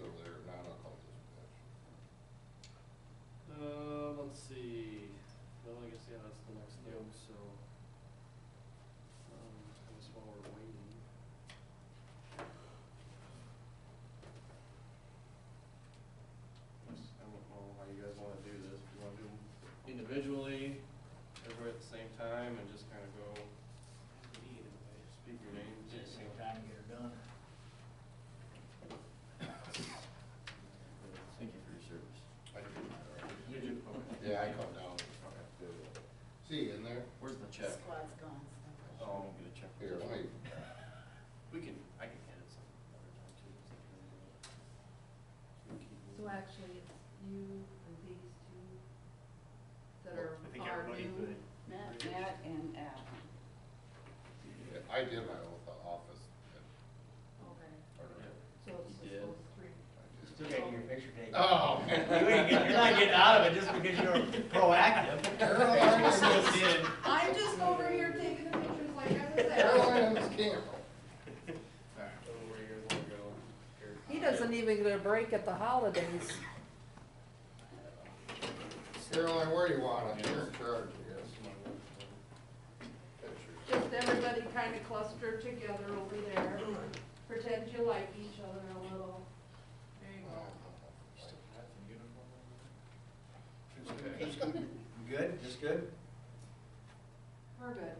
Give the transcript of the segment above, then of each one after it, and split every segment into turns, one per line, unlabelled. Uh, um,
picture taken.
Oh.
You ain't get- You're not getting out of it just because you're proactive.
Carolina was in,
I'm just over here taking the pictures like I was there.
Carolina was camp.
Oh,
He doesn't even get a break at the holidays.
Caroline, where do you want it? You're in charge, I guess. Pictures.
Just everybody kind of clustered together over there. Pretend you like each other a little. There you go.
Okay.
You Good, just good?
We're good.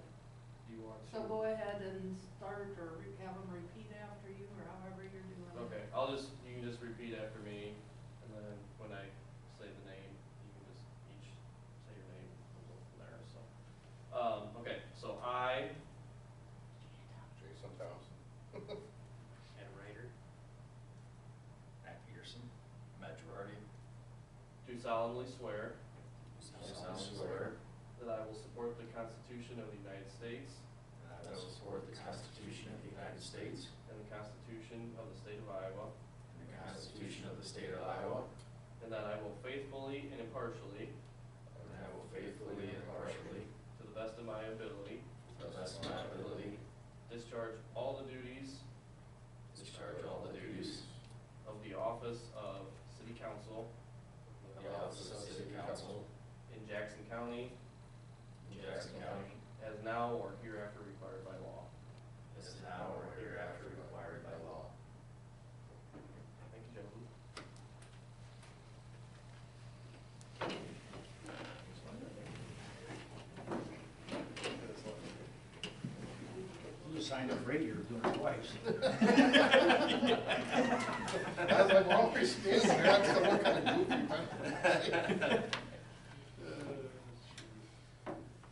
So go ahead and start or re- have them repeat after you or however you're doing it.
Okay, I'll just, you can just repeat after me, and then when I say the name, you can just each say your name, and go from there, so. Um, okay, so I,
Jason Thompson.
Ed Ryder. Matt Peterson. Matt Girardi.
do solemnly swear
do
solemnly
that I will support the Constitution of the United States
That I will support the Constitution of the United States
and the Constitution of the State of Iowa,
and the Constitution of the State of Iowa,
and that I will faithfully and impartially,
and I will faithfully and impartially,
to the best of my ability,
to the best of my ability,
discharge all the duties
discharge all the duties
of the office of City Council
of the office of City Council
in Jackson County
in Jackson County,
as now or hereafter required by law.
as is now or hereafter required by law.
Thank you, gentlemen.
You signed up radio, doing it twice.
I was like, well, we stand there, that's the look kind of goofy, man.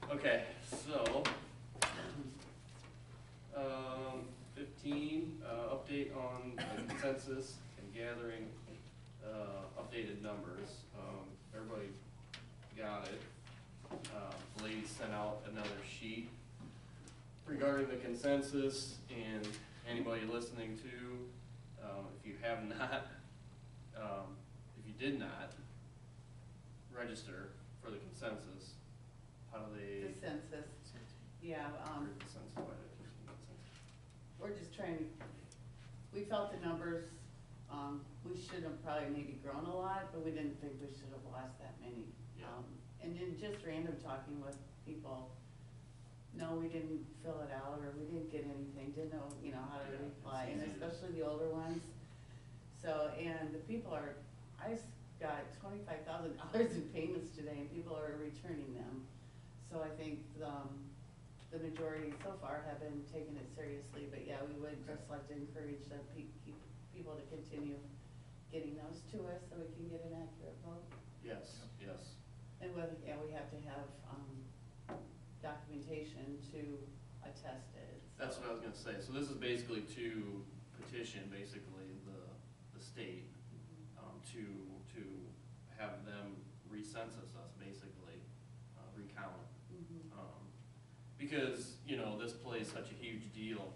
Okay, so, um, fifteen, uh, update on the consensus and gathering, uh, updated numbers. Um, everybody got it. Uh, the lady sent out another sheet regarding the consensus and anybody listening to, um, if you have not, um, if you did not register for the consensus, how do they?
The census, yeah, um,
Consensus, why did
we're just trying, to. we felt the numbers, um, we should have probably maybe grown a lot, but we didn't think we should have lost that many.
Yeah.
Um, And then just random talking with people, no, we didn't fill it out, or we didn't get anything, didn't know, you know, how
Yeah,
to
it's
reply, and
easy to-
especially the older ones. So, and the people are, I s- got twenty-five thousand dollars in payments today, and people are returning them. So I think, um, the majority so far have been taking it seriously, but yeah, we would just like to encourage the pe- keep, people to continue getting those to us so we can get an accurate vote.
Yes, yes.
And whether, yeah, we have to have, um, documentation to attest it. so-
That's what I was gonna say, so this is basically to petition, basically, the, the state, um, to, to have them recensus us, basically, uh, recount.
Mhm.
Um, because, you know, this plays such a huge deal,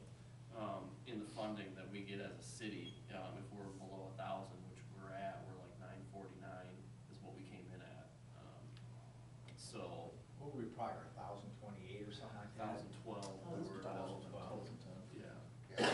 um, in the funding that we get as a city, um, if we're below a thousand, which we're at, we're like nine forty-nine is what we came in at, um, so,
What were we prior